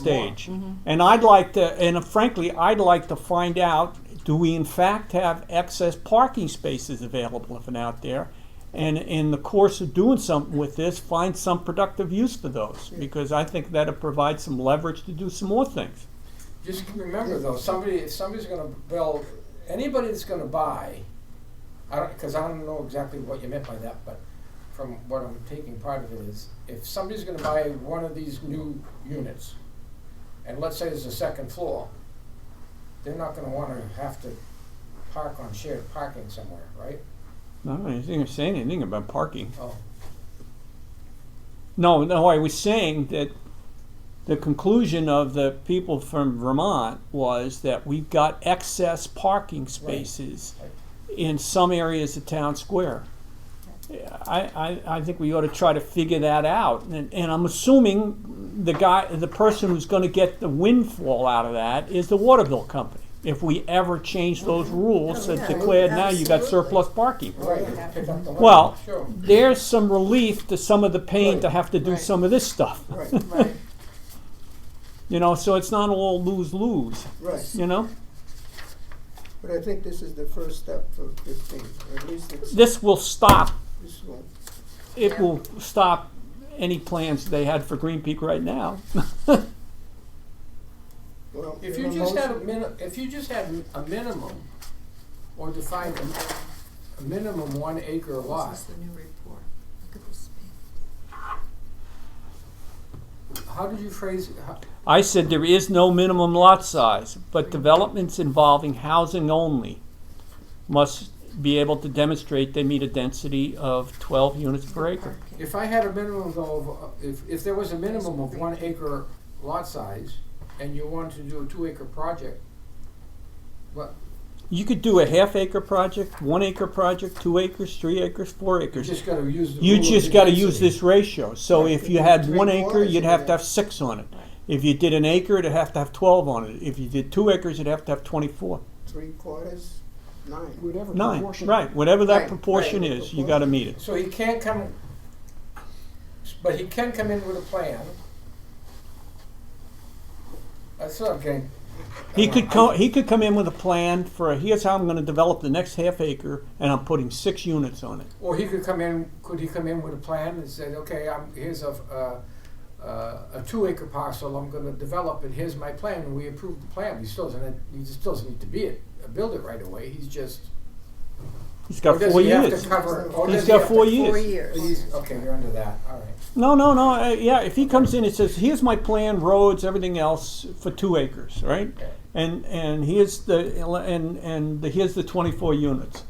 stage. And I'd like to, and frankly, I'd like to find out, do we in fact have excess parking spaces available if and out there? And in the course of doing something with this, find some productive use for those, because I think that'll provide some leverage to do some more things. Just remember though, somebody, if somebody's gonna build, anybody that's gonna buy, I don't, cause I don't know exactly what you meant by that, but from what I'm taking part of it is, if somebody's gonna buy one of these new units, and let's say there's a second floor, they're not gonna wanna have to park on shared parking somewhere, right? No, I didn't say anything about parking. Oh, No, no, I was saying that the conclusion of the people from Vermont was that we've got excess parking spaces in some areas of town square. Yeah, I, I, I think we ought to try to figure that out, and, and I'm assuming the guy, the person who's gonna get the windfall out of that is the water bill company. If we ever change those rules that declared now you got surplus parking. right, you pick up the Well, light, sure. there's some relief to some of the pain to Right, have to do right. some of this stuff. Right, right, You know, so it's not all lose lose. right. You know, But I think this is the first step for fifteen, or at least it's, this will stop. this one. It will stop any plans they had for Green Peak right now. Well, If in you a just had a motion- min, if you just had a minimum, or defined a, a minimum one acre lot, This is the new report. Look at this page. how did you phrase, it? how, I said there is no minimum lot size, but developments involving housing only must be able to demonstrate they meet a density of 12 units per acre. Parking. If I had a minimum though, of, if, if there was a minimum of one acre lot size, and you wanted to do a two acre project, what, You could do a half acre project, one acre project, two acres, three acres, four you acres. just gotta use the You rule of just gotta use density. this ratio, so Right, if if you you had drink one water, acre, you you'd could have to have- have six on it. Right. If you did an acre, it'd have to have twelve on it, if you did two acres, it'd have to have twenty-four, Three quarters, nine. whatever nine, proportion. right, whatever that Right, proportion right. is, you gotta meet it. So he can't come, but he can come in with a plan. That's not getting. He could co- he could come in with a plan for, here's how I'm gonna develop the next half acre, and I'm putting six units on it. Or he could come in, could he come in with a plan and say, okay, I'm, here's a, uh, uh, a two acre parcel, I'm gonna develop it, here's my plan, and we approve the plan, he still doesn't, he just doesn't need to be it, build it right away, he's just. He's got four Or Oh, does he have years. to cover, or He's does he got have to- four Four years. years. he's- okay, you're under that, all right. No, no, no, uh, yeah, if he comes in and says, here's my plan, roads, everything else, for two acres, right? and and here's the and and the, here's the 24 units.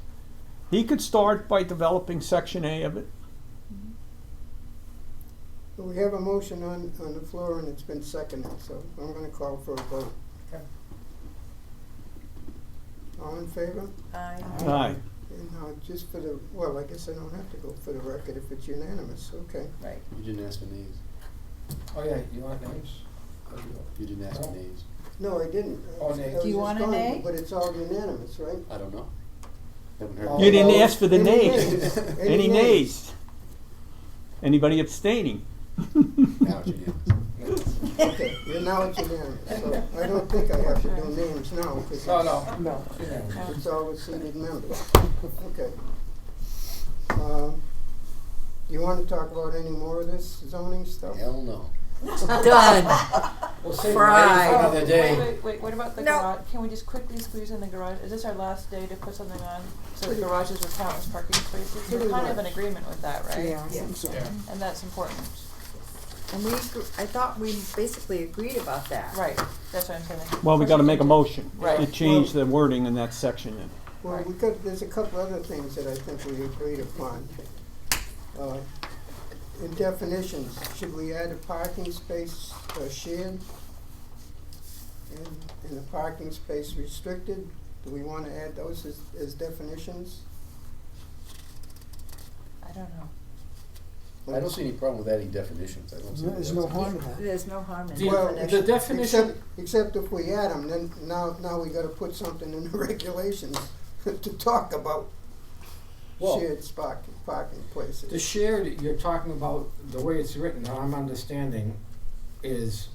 He could start by developing section A of it. But we have a motion on, on the floor and it's been seconded, so I'm gonna call for a vote. Okay. All in favor? Aye. Aye. And now, just for the, well, I guess I don't have to go for the record if it's unanimous, okay. Right. You didn't ask for names. Oh, yeah, you want names? You didn't ask for No. names. No, I didn't. I Oh, was- I nay. Do was you just want a going, nay? But it's all unanimous, right? I don't know. Haven't heard. You All You didn't those- ask for the any nays. Any nays? Anybody abstaining? Now it's unanimous. Okay, well, now it's unanimous, so I don't think I have to do names now, because No, no, No, you know. it's all with seated members, okay. Um, You wanna talk about any more of this zoning stuff? Hell no. Done. we'll save the names Fried. for another Oh, Wait, day. wait, wait, what about the No. garage? Can we just quickly squeeze in the garage? Is this our last day to put something on? So the garages will count as parking spaces? We're Pretty kind of in much. agreement with that, right? Yeah. Yeah. Yeah. And that's important. And we, agr- I thought we basically agreed about that. Right, that's what I'm saying. Well, we got to make a motion to Right. change the wording in that section. then. Well, we got, there's a couple other things that I think we agreed upon. Uh, In definitions, should we add a parking space uh, shared? And, and a parking space restricted, do we wanna add those as, as definitions? I don't know. I don't see any problem with adding definitions. I don't see. any there's no harm in definition. that. There's no harm in The, Well, the definition. definition, Except, except if we add them, then now, now we gotta put something in the regulations to talk about Well- shared spark, parking places. the shared, you're talking about, the way it's written, how I'm understanding, is